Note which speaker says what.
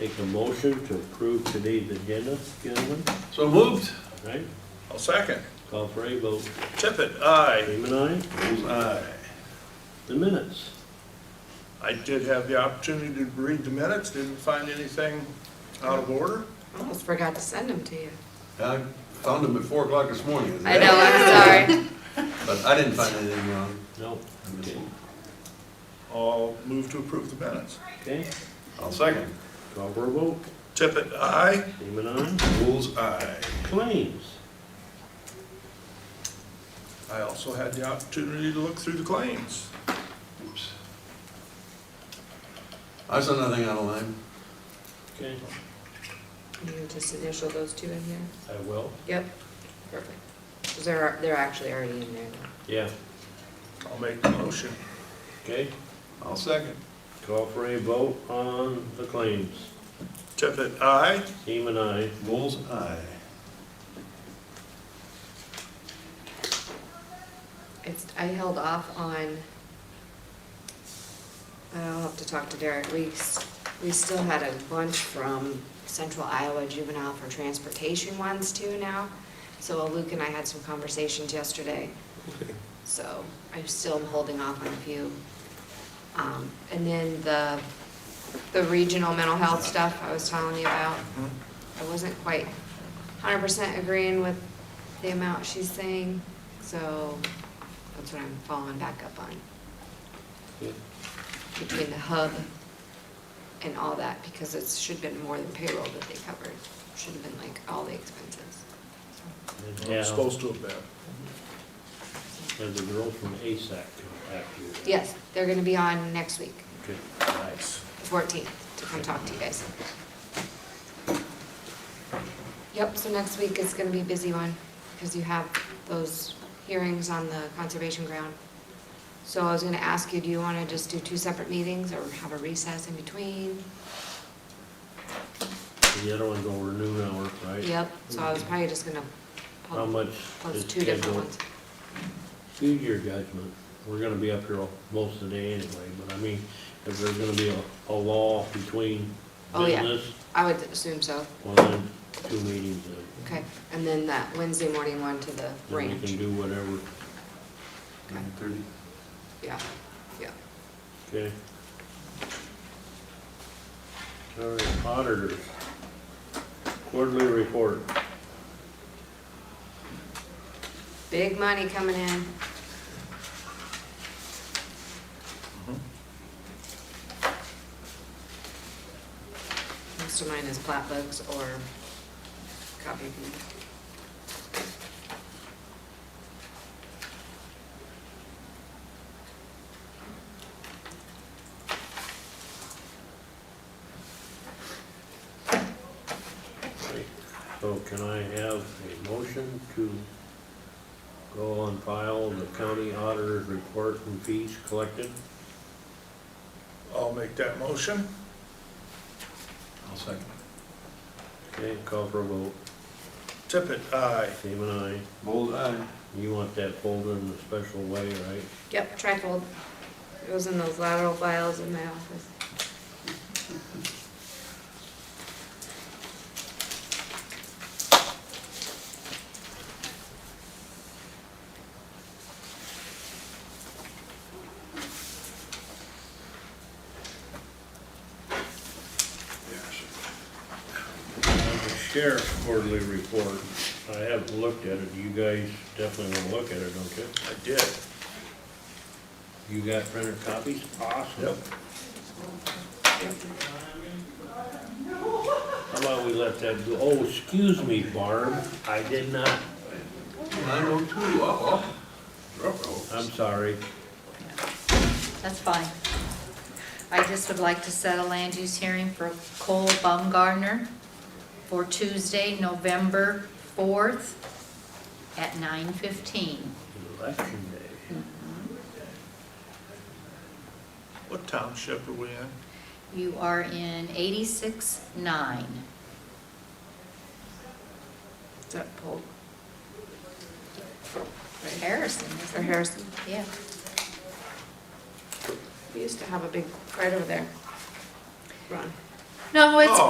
Speaker 1: Make a motion to approve today's agenda, gentlemen,
Speaker 2: So moved.
Speaker 1: right?
Speaker 2: I'll second.
Speaker 1: Call for a vote.
Speaker 2: Tippit, aye.
Speaker 1: Freeman, aye.
Speaker 2: Aye.
Speaker 1: The minutes.
Speaker 2: I did have the opportunity to read the minutes, didn't find anything out of order.
Speaker 3: Almost forgot to send them to you.
Speaker 4: I found them at four o'clock this morning.
Speaker 3: I know, I'm sorry.
Speaker 4: But I didn't find anything wrong.
Speaker 1: No.
Speaker 4: I missed
Speaker 1: Okay.
Speaker 4: one.
Speaker 2: I'll move to approve the minutes.
Speaker 1: Okay,
Speaker 4: I'll second.
Speaker 1: call for a vote.
Speaker 2: Tippit, aye.
Speaker 1: Freeman, aye.
Speaker 2: Bulls, aye.
Speaker 1: Claims.
Speaker 2: I also had the opportunity to look through the claims.
Speaker 4: Oops. I saw nothing out of line.
Speaker 1: Okay,
Speaker 3: You just initial those two in here?
Speaker 1: I will.
Speaker 3: Yep, perfect. 'Cause they're, they're actually already in there now.
Speaker 1: Yeah,
Speaker 2: I'll make the motion.
Speaker 1: okay.
Speaker 4: I'll second.
Speaker 1: Call for a vote on the claims.
Speaker 2: Tippit, aye.
Speaker 1: Freeman, aye.
Speaker 4: Bull's eye.
Speaker 3: It's, I held off on, I'll have to talk to Derek. We, s- we still had a bunch from Central Iowa Juvenile for Transportation ones too now. So Luke and I had some conversations yesterday. So I'm still am holding off on a few. Um, And then the, the regional mental health stuff I was telling you about. I wasn't quite hundred percent agreeing with the amount she's saying, so that's what I'm following back up on,
Speaker 1: Yeah.
Speaker 3: between the hub and all that, because it should have been more than payroll that they covered, should have been like all the expenses.
Speaker 2: I'm
Speaker 1: Yeah,
Speaker 2: supposed to have been.
Speaker 1: there's a girl from ASAC come after you.
Speaker 3: Yes, they're gonna be on next week,
Speaker 1: Okay.
Speaker 2: Nice.
Speaker 3: the fourteenth, to come talk to you guys. Yep, so next week is gonna be a busy one, because you have those hearings on the conservation ground. So I was gonna ask you, do you wanna just do two separate meetings, or have a recess in between?
Speaker 1: The other one's over noon hour, right?
Speaker 3: Yep, so I was probably just gonna.
Speaker 1: How much
Speaker 3: Plus
Speaker 1: is
Speaker 3: two different
Speaker 1: scheduled?
Speaker 3: ones.
Speaker 1: Use your judgment. We're gonna be up here all- most of the day anyway, but I mean, if there's gonna be a, a law between
Speaker 3: Oh, yeah.
Speaker 1: business,
Speaker 3: I would assume so,
Speaker 1: well, then two meetings, then.
Speaker 3: okay. And then that Wednesday morning one to the
Speaker 1: Then we
Speaker 3: ranch.
Speaker 1: can do whatever,
Speaker 4: Nine thirty.
Speaker 3: Yeah, yeah.
Speaker 1: okay? All right, auditors. Quarterly report.
Speaker 3: Big money coming in. Most of mine is plat books or copy.
Speaker 1: Okay. So can I have a motion to go on file the county auditor's report and fees collected?
Speaker 2: I'll make that motion.
Speaker 4: I'll second.
Speaker 1: Okay, call for a vote.
Speaker 2: Tippit, aye.
Speaker 1: Seaman, aye.
Speaker 4: Bull's eye.
Speaker 1: You want that folder in a special way, right?
Speaker 3: Yep, trifold. It was in those lateral files in my office.
Speaker 1: The sheriff's quarterly report, I haven't looked at it, you guys definitely wanna look at it, don't you?
Speaker 2: I did.
Speaker 1: You got printed copies? Awesome.
Speaker 2: Yep.
Speaker 1: How about we let that go, oh, excuse me, Barb, I did not,
Speaker 4: Nine oh two, oh, oh.
Speaker 1: I'm sorry.
Speaker 5: That's fine. I just would like to set a land use hearing for Cole Baumgartner for Tuesday, November 4th at 9:15.
Speaker 1: Election day.
Speaker 2: What township are we in?
Speaker 5: You are in 86-9.
Speaker 3: Is that pulled?
Speaker 5: Harrison, isn't
Speaker 3: Or
Speaker 5: it?
Speaker 3: Harrison?
Speaker 5: Yeah.
Speaker 3: We used to have a big, right over there. Run.
Speaker 5: No, it's
Speaker 2: Oh.